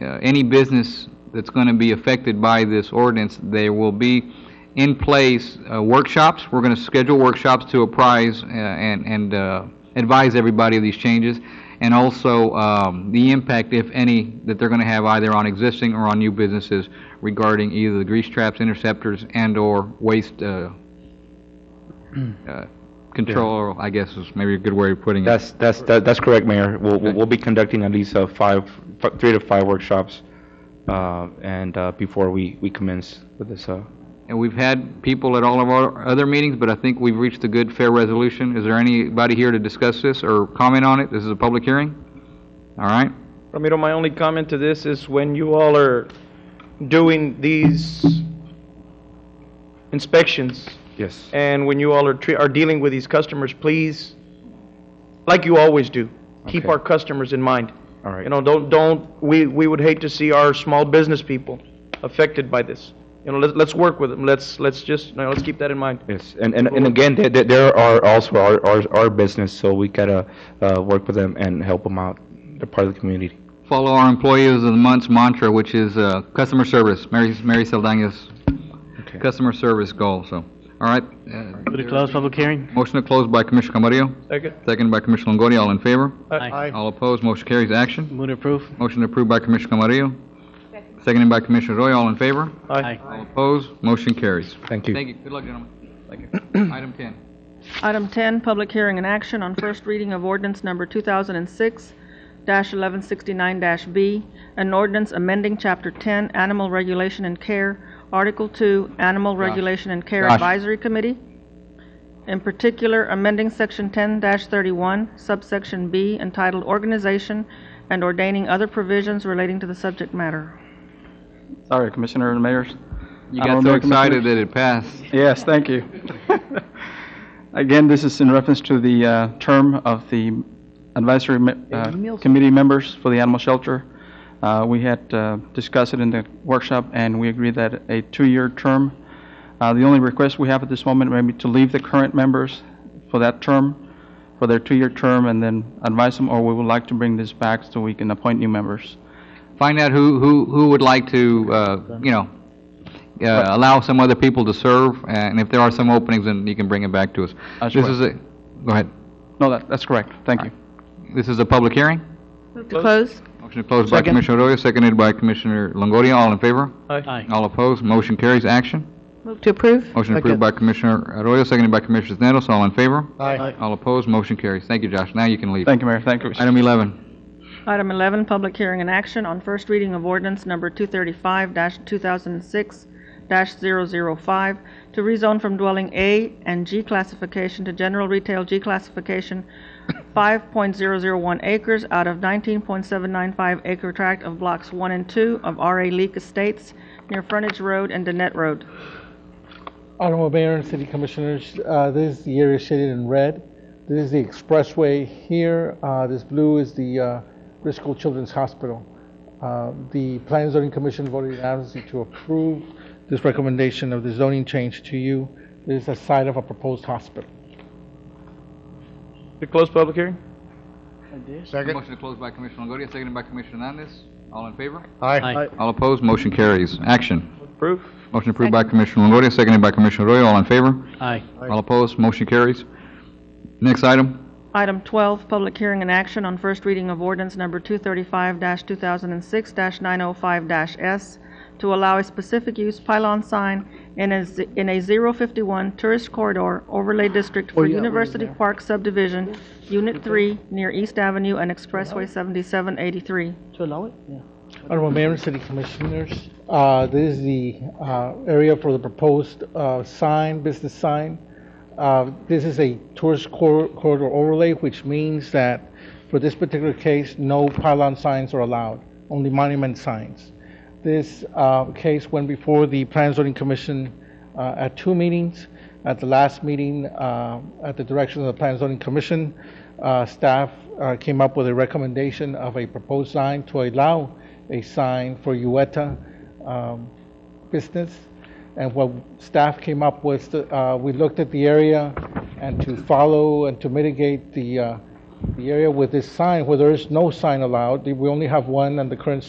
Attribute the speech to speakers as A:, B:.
A: uh, any business that's going to be affected by this ordinance, there will be in place uh, workshops. We're going to schedule workshops to apprise uh, and and uh, advise everybody of these changes, and also um, the impact, if any, that they're going to have either on existing or on new businesses regarding either the grease traps, interceptors, and/or waste uh, uh, control, I guess is maybe a good way of putting it.
B: That's, that's, that- that's correct, Mayor. We'll, we'll be conducting at least uh, five, fi- three to five workshops, uh, and, uh, before we, we commence with this, uh,
A: And we've had people at all of our other meetings, but I think we've reached a good, fair resolution. Is there anybody here to discuss this or comment on it? This is a public hearing? All right?
C: Ramiro, my only comment to this is when you all are doing these inspections
B: yes.
C: and when you all are, tre- are dealing with these customers, please, like you always do, keep
B: Okay.
C: our customers in mind.
B: All right.
C: You know, don't, don't, we, we would hate to see our small business people affected by this. You know, let's, let's work with them. Let's, let's just, you know, let's keep that in mind.
B: Yes, and, and, and again, there, there- there are also our, our, our business, so we gotta, uh, work with them and help them out. They're part of the community.
A: Follow our employees of the month's mantra, which is uh, customer service, Mary Mary Saldana's
B: Okay.
A: customer service goal, so. All right? uh,
D: Move to close public hearing?
A: Motion to close by Commissioner Camarillo,
C: Second?
A: second by Commissioner Longoria. All in favor?
D: Aye.
A: All opposed, motion carries. Action.
D: Move to approve?
A: Motion approved by Commissioner Camarillo, seconded by Commissioner Roy. All in favor?
C: Aye.
A: All opposed, motion carries.
B: Thank you.
A: Thank you. Good luck, gentlemen. Thank you. Item 10.
E: Item 10, public hearing and action on first reading of ordinance number 2006-1169-B, an ordinance amending Chapter 10, Animal Regulation and Care, Article 2, Animal Regulation and Care
A: Josh.
E: Advisory Committee, in particular amending Section 10-31, subsection B, entitled Organization, and ordaining other provisions relating to the subject matter.
F: Sorry, Commissioner and Mayors.
A: You
F: I
A: got
F: don't
A: so
F: know,
A: excited that it passed.
F: Yes, thank you. Again, this is in reference to the uh, term of the advisory me- uh, committee members for the animal shelter. Uh, We had uh, discussed it in the workshop, and we agreed that a two-year term. Uh, The only request we have at this moment may be to leave the current members for that term, for their two-year term, and then advise them, or we would like to bring this back so we can appoint new members.
A: Find out who, who, who would like to, uh, you know, uh, allow some other people to serve, and if there are some openings, then you can bring it back to us.
F: That's
A: This
F: right.
A: is a, go ahead.
F: No, that- that's correct. Thank you.
A: This is a public hearing.
E: Move to close.
A: Motion to close by
C: Second.
A: Commissioner Arroyo, seconded by Commissioner Longoria. All in favor?
D: Aye.
A: All opposed? Motion carries. Action.
E: Move to approve.
A: Motion approved
C: Second.
A: by Commissioner Arroyo, seconded by Commissioner Nettles. All in favor?
C: Aye.
A: All opposed? Motion carries. Thank you, Josh. Now you can leave.
F: Thank you, Mayor. Thank you.
A: Item 11.
E: Item 11, public hearing and action on first reading of ordinance number 235-2006-005 to rezone from dwelling A and G classification to general retail G classification, 5.001 acres out of 19.795 acre tract of blocks 1 and 2 of RA Leak Estates near Frontage Road and Danette Road.
G: Honorable Mayor and City Commissioners, uh, this is the area shaded in red. This is the expressway here. Uh, This blue is the uh, Briscoe Children's Hospital. Uh, The Plan and Zoning Commission voted unanimously to approve this recommendation of the zoning change to you. This is a site of a proposed hospital.
C: To close public hearing?
A: Motion to close by Commissioner Longoria, seconded by Commissioner Hernandez. All in favor?
D: Aye.
A: All opposed, motion carries. Action.
C: Approve?
A: Motion approved by Commissioner Longoria, seconded by Commissioner Arroyo. All in favor?
D: Aye.
A: All opposed, motion carries. Next item,
E: Item 12, public hearing and action on first reading of ordinance number 235-2006-905-S to allow a specific use pylon sign in a z- in a 051 tourist corridor overlay district for University Park subdivision, Unit 3, near East Avenue and Expressway 7783.
G: Honorable Mayor and City Commissioners, uh, this is the uh, area for the proposed uh, sign, business sign. Uh, This is a tourist cor- corridor overlay, which means that for this particular case, no pylon signs are allowed, only monument signs. This uh, case went before the Plan and Zoning Commission uh, at two meetings. At the last meeting, uh, at the direction of the Plan and Zoning Commission, uh, staff uh, came up with a recommendation of a proposed sign to allow a sign for Ueta um, business. And what staff came up with, uh, we looked at the area and to follow and to mitigate the, uh, the area with this sign, where there is no sign allowed. We only have one and the current